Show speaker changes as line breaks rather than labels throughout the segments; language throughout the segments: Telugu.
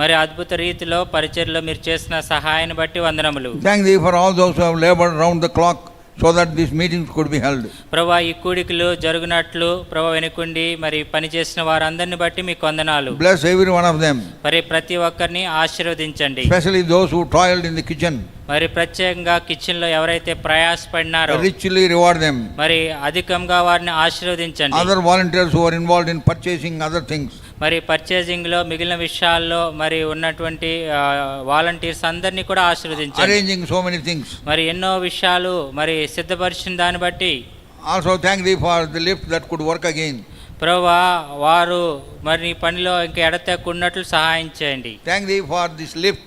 మరి అద్భుత రీతిలో పరిచర్లో మీరు చేసిన సహాయాన్ని బట్టి వందనములు
Thank thee for all those who have labored round the clock so that these meetings could be held.
ప్రభా ఈ కూడికలు జరుగునట్లు ప్రభా వెనుకుండి మరి పనిచేసిన వారందరిని బట్టి మీకు వందనాలు
Bless every one of them,
మరి ప్రతి ఒక్కరిని ఆశీర్వదించండి
especially those who toiled in the kitchen.
మరి ప్రత్యేకంగా కిచెన్ లో ఎవరైతే ప్రయాసపడినారో
Richly reward them.
మరి అధికంగా వారిని ఆశీర్వదించండి
Other volunteers who are involved in purchasing other things.
మరి పర్చేసింగ్ లో మిగిలిన విషయాల్లో మరి ఉన్నటువంటి వాలంటీర్స్ అందరినీ కూడా ఆశీర్వదించండి
arranging so many things.
మరి ఎన్నో విషయాలు మరి సిద్ధపరిచిన దాన్ని బట్టి
Also thank thee for the lift that could work again.
ప్రభా వారు మరి నీ పనిలో ఇంకా ఎడతెక్కున్నట్లు సహాయం చేయండి
Thank thee for this lift,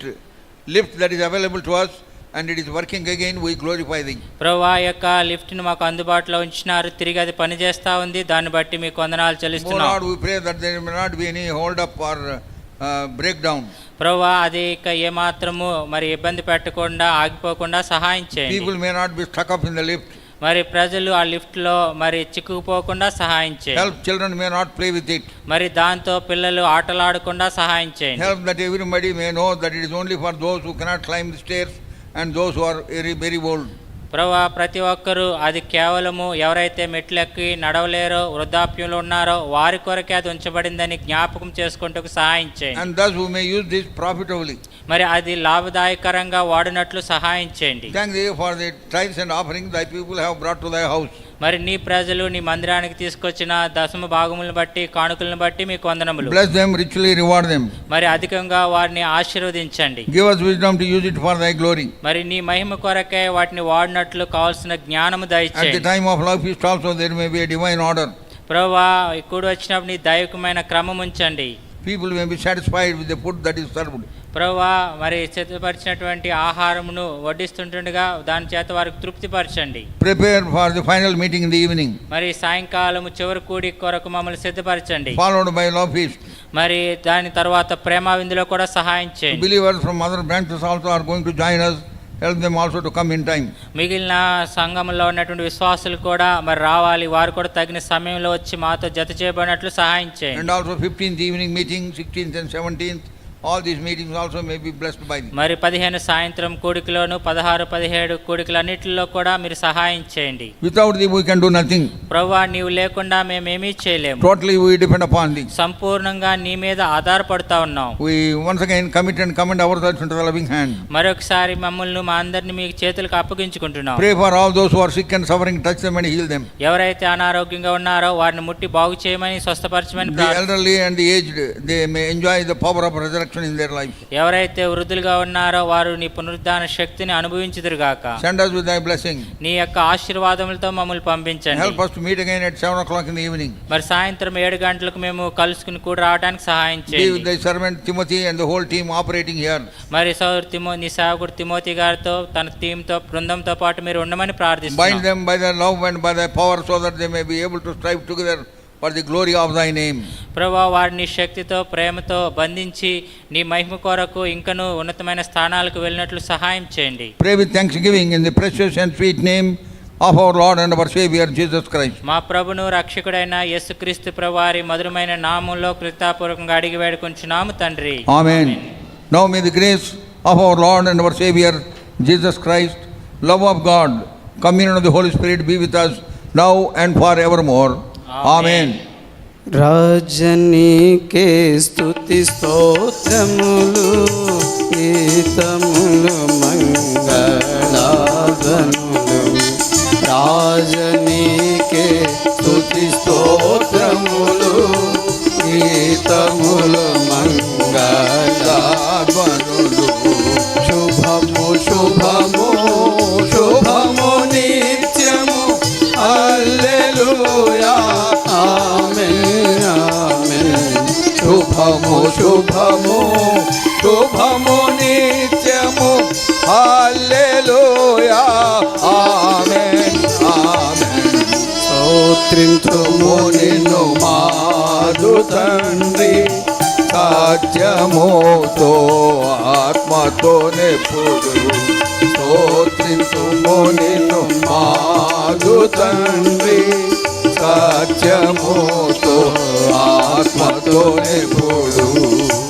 lift that is available to us and it is working again, we glorify thee.
ప్రభా ఈ యొక్క లిఫ్ట్ ని మాకు అందుబాటులో ఉంచినారు తిరిగి అది పనిచేస్తా ఉంది దాన్ని బట్టి మీకు వందనాలు
Oh Lord,
చెల్లిస్తున్నాం
we pray that there may not be any hold up or uh, breakdown.
ప్రభా అది ఇక ఏమాత్రము మరి ఇబ్బంది పెట్టకుండా ఆగిపోకుండా సహాయం
People
చేయండి
may not be stuck up in the lift.
మరి ప్రజలు ఆ లిఫ్ట్ లో మరి చిక్కుకుపోకుండా సహాయం చేయండి
Help children may not play with it.
మరి దాంతో పిల్లలు ఆటలాడకుండా సహాయం చేయండి
Help that everybody may know that it is only for those who cannot climb the stairs and those who are very, very old.
ప్రభా ప్రతి ఒక్కరూ అది కేవలము ఎవరైతే మెట్లెక్కి నడవలేరో వృద్ధాప్యంలో ఉన్నారో వారి కొరకే అది ఉంచబడిందని జ్ఞాపకం చేసుకుంటూ సహాయం చేయండి
And thus we may use this profitably.
మరి అది లాభదాయకరంగా వాడినట్లు సహాయం చేయండి
Thank thee for the tithes and offerings thy people have brought to thy house.
మరి నీ ప్రజలు నీ మందిరానికి తీసుకొచ్చిన దశమ భాగములను బట్టి కానుకలను బట్టి మీకు వందనములు
Bless them, richly reward them.
మరి అధికంగా వారిని ఆశీర్వదించండి
Give us wisdom to use it for thy glory.
మరి నీ మహిమ కొరకే వాటిని వాడినట్లు కావాల్సిన జ్ఞానము
At the
దయచేయండి
time of love feast also there may be a divine order.
ప్రభా ఇక్కడ వచ్చినప్పుడు నీ దైవికమైన క్రమం ఉంచండి
People may be satisfied with the food that is served.
ప్రభా మరి సిద్ధపరిచినటువంటి ఆహారమును వడ్డిస్తుంటుండగా దాని చేత వారికి తృప్తిపరచండి
Prepare for the final meeting in the evening,
మరి సాయంకాలము చివరి కూడి కొరకు మమ్మల్ని సిద్ధపరచండి
followed by love feast.
మరి దాని తర్వాత ప్రేమ విందులో కూడా సహాయం చేయండి
Believers from other branches also are going to join us. Help them also to come in time.
మిగిలిన సంఘంలో ఉన్నటువంటి విశ్వాసులు కూడా మరి రావాలి వారు కూడా తగిన సమయంలో వచ్చి మాతో జత చేయబడినట్లు సహాయం
And
చేయండి
also 15th evening meeting, 16th and 17th, all these meetings also may be blessed by thee.
మరి పదిహేను సాయంత్రం కూడికలోను పదహారు పదిహేడు కూడికలన్నిటిలో కూడా మీరు సహాయం చేయండి
Without thee we can do nothing.
ప్రభా నీవు లేకుండా మేమేమీ చేయలేము
Totally we depend upon thee.
సంపూర్ణంగా నీ మీద ఆధారపడతా ఉన్నాం
We once again commit and commend ourselves into the loving hand.
మరొకసారి మమ్మల్ని మా అందరిని మీ చేతులకు అప్పగించుకుంటున్నాం
Pray for all those who are sick and suffering, touch them and heal them.
ఎవరైతే అనారోగ్యంగా ఉన్నారో వారిని ముట్టి బాగు చేయమని స్వస్థపరచమని
The
ప్రార్థి-
elderly and the aged, they may enjoy the power of resurrection in their life.
ఎవరైతే వృద్ధులుగా ఉన్నారో వారు నీ పునరుద్ధాన శక్తిని అనుభవించుదురుగాక
Send us with thy blessing.
నీ యొక్క ఆశీర్వాదములతో మమ్మల్ని
Help
పంపించండి
us to meet again at 7 o'clock in the evening.
మరి సాయంత్రం ఏడు గంటలకు మేము కలుసుకుని కూడా రావడానికి సహాయం
Be with
చేయండి
thy servant Timothy and the whole team operating here.
మరి సౌర్ తిమో నీ సేవకుడు తిమోతి గారితో తన టీంతో బృందంతో పాటు మీరు ఉండమని
Bind
ప్రార్థిస్తున్నాం
them by thy love and by thy power so that they may be able to strive together for the glory of thy name.
ప్రభా వారిని శక్తితో ప్రేమతో బంధించి నీ మహిమ కొరకు ఇంకనూ ఉన్నతమైన స్థానాలకు వెళ్ళినట్లు సహాయం చేయండి
Pray with thanksgiving in the precious and sweet name of our Lord and our Savior Jesus Christ.
మా ప్రభును రక్షకుడైన యేసుక్రీస్తు ప్రభువారి మధురమైన నామంలో కృతాపూర్వకంగా అడిగి వేడుకుంటున్నాము తండ్రి
Amen. Now may the grace of our Lord and our Savior Jesus Christ, love of God, communion of the Holy Spirit be with us now and forevermore.
Amen.
Amen.
రాజనీకే స్తుతి స్తోత్రములు గీతములు మంగళాదనులు రాజనీకే స్తుతి స్తోత్రములు గీతములు మంగళాదనులు శుభము శుభము శుభము నిత్యము హల్లెలూయా ఆమేన్ ఆమేన్ శుభము శుభము శుభము నిత్యము హల్లెలూయా ఆమేన్ ఆమేన్ స్తోత్రించుము నిన్ను మారు తండ్రి సాధ్యముతో ఆత్మతో నెప్పుడు స్తోత్రించుము నిన్ను మారు తండ్రి సాధ్యముతో ఆత్మతో నెప్పుడు